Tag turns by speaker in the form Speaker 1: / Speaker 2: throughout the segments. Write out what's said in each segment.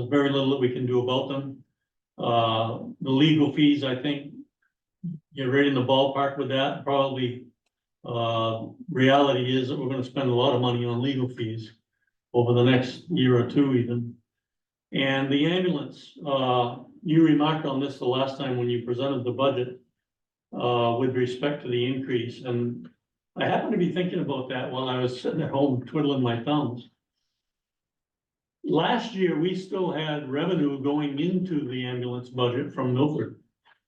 Speaker 1: There's very little that we can do about them. Uh, the legal fees, I think, you're right in the ballpark with that, probably. Uh, reality is that we're gonna spend a lot of money on legal fees over the next year or two even. And the ambulance, uh, you remarked on this the last time when you presented the budget uh, with respect to the increase, and I happened to be thinking about that while I was sitting at home twiddling my thumbs. Last year, we still had revenue going into the ambulance budget from Milford,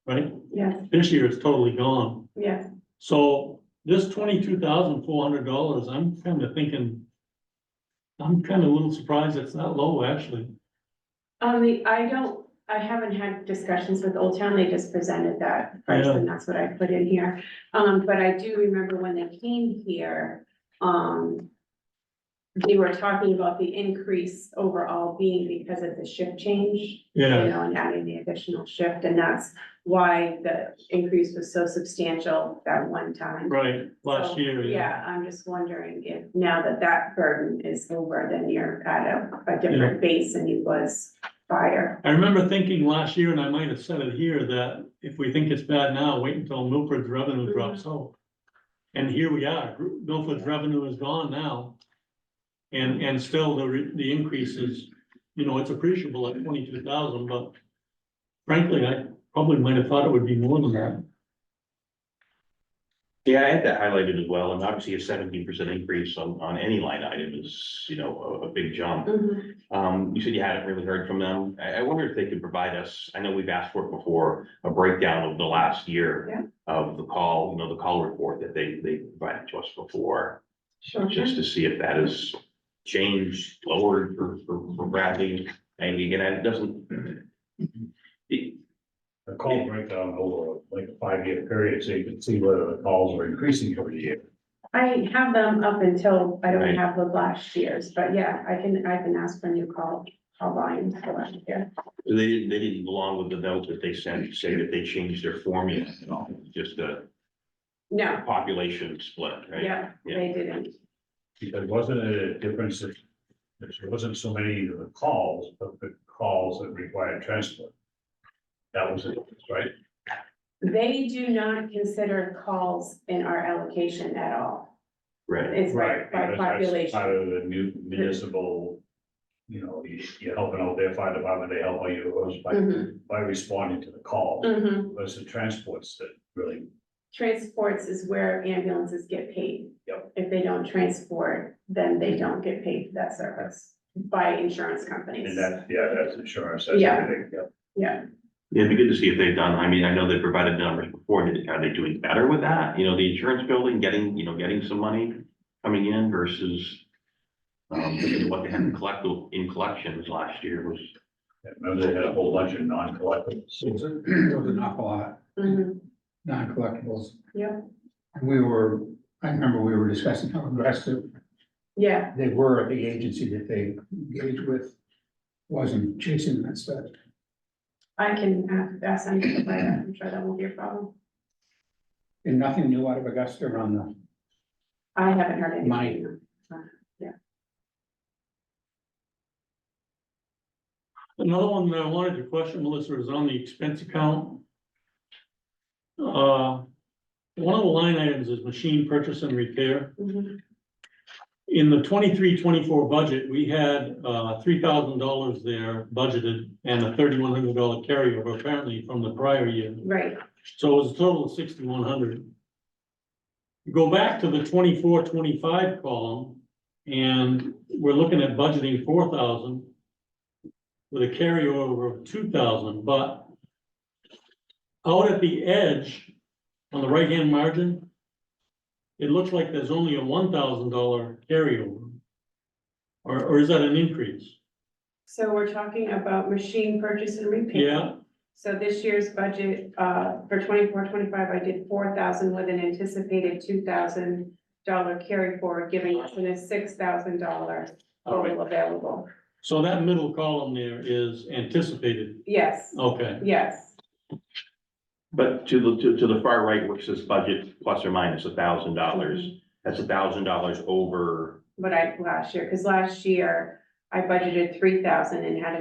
Speaker 1: right?
Speaker 2: Yes,
Speaker 1: This year it's totally gone.
Speaker 2: yes,
Speaker 1: So this twenty-two thousand four hundred dollars, I'm kind of thinking, I'm kind of a little surprised it's not low, actually.
Speaker 2: um, the, I don't, I haven't had discussions with Old Town, they just presented that first,
Speaker 1: Yeah.
Speaker 2: and that's what I put in here. Um, but I do remember when they came here, um. They were talking about the increase overall being because of the shift change. you know, and adding the additional shift, and that's why the increase was so substantial that one time.
Speaker 1: Right, last
Speaker 2: So,
Speaker 1: year, yeah.
Speaker 2: Yeah, I'm just wondering if now that that burden is over, then you're at a, a different base than you was prior.
Speaker 1: I remember thinking last year, and I might have said it here, that if we think it's bad now, wait until Milford's revenue
Speaker 2: Mhm.
Speaker 1: drops out. And here we are, Gr- Milford's revenue is gone now. And, and still the, re- the increase is, you know, it's appreciable at twenty-two thousand, but frankly, I probably might have thought it would be more than that.
Speaker 3: Yeah, I had that highlighted as well, and obviously a seventeen percent increase on, on any line item is, you know, a, a big jump.
Speaker 2: Mhm.
Speaker 3: Um, you said you hadn't really heard from them. I, I wonder if they could provide us, I know we've asked for it before, a breakdown of the last year
Speaker 2: Yeah.
Speaker 3: of the call, you know, the call report that they, they provided to us before,
Speaker 2: Sure.
Speaker 3: just to see if that is changed, lowered for, for, for Bradley. And again, it doesn't. It,
Speaker 4: a call breakdown over like a five-year period, so you can see whether the calls are increasing every year.
Speaker 2: I have them up until, I don't
Speaker 3: Right.
Speaker 2: have the last year's, but yeah, I can, I can ask for new call, call volumes for last year.
Speaker 3: So They didn't, they didn't belong with the note that they sent, to say that they changed their formula at all, just a
Speaker 2: No,
Speaker 3: population split, right?
Speaker 2: yeah, they didn't,
Speaker 4: Because wasn't it a difference if, if there wasn't so many of the calls, but the calls that required transport? That was it, right?
Speaker 2: they do not consider calls in our allocation at all.
Speaker 3: Right,
Speaker 2: It's by, by
Speaker 4: because that's Part
Speaker 2: population.
Speaker 4: of the new municipal, you know, you- you're helping out their fire department, they help out yours by,
Speaker 2: Mhm.
Speaker 4: by responding to the call.
Speaker 2: Mhm.
Speaker 4: Versus the transports that really,
Speaker 2: Transports is where ambulances get paid.
Speaker 4: Yep.
Speaker 2: If they don't transport, then they don't get paid for that service by insurance companies.
Speaker 4: and that, yeah, that's insurance, that's
Speaker 2: Yeah.
Speaker 4: everything, yeah.
Speaker 2: Yeah,
Speaker 3: it'd be good to see if they've done, I mean, I know they provided numbers before, Did- are they doing better with that? You know, the insurance building, getting, you know, getting some money coming in versus um, you know, what they had in collect, in collections last year was,
Speaker 4: And Remember they had a whole bunch of non-collectibles.
Speaker 5: It was a- it was an awful lot,
Speaker 2: Mhm.
Speaker 5: non-collectibles.
Speaker 2: Yeah.
Speaker 5: And we were, I remember we were discussing how aggressive
Speaker 2: yeah,
Speaker 5: they were at the agency that they engaged with. Wasn't chasing that stuff.
Speaker 2: I can have- ask them to provide that, I'm sure that won't be a problem.
Speaker 5: And nothing new out of Augusta on the,
Speaker 2: I haven't heard anything.
Speaker 5: Mine.
Speaker 1: Another one that I wanted to question, Melissa, is on the expense account. Uh, one of the line items is machine purchase and repair.
Speaker 2: Mhm.
Speaker 1: In the 23-24 budget, we had, uh, three thousand dollars there budgeted and a thirty-one hundred dollar carryover apparently from the prior year.
Speaker 2: Right,
Speaker 1: So it was a total of sixty-one hundred. Go back to the 24-25 column and we're looking at budgeting four thousand with a carryover of two thousand, but out at the edge on the right-hand margin, it looks like there's only a one thousand dollar carryover. Or, or is that an increase?
Speaker 2: so we're talking about machine purchase and repair.
Speaker 1: Yeah,
Speaker 2: So this year's budget, uh, for 24-25, I did four thousand with an anticipated two thousand dollar carry forward, giving us a six thousand dollar
Speaker 1: all right.
Speaker 2: total available.
Speaker 1: So that middle column there is anticipated.
Speaker 2: Yes,
Speaker 1: Okay,
Speaker 2: yes,
Speaker 3: but to the, to, to the far right, which says budget plus or minus a thousand dollars. That's a thousand dollars over
Speaker 2: what I, last year, because last year I budgeted three thousand and had a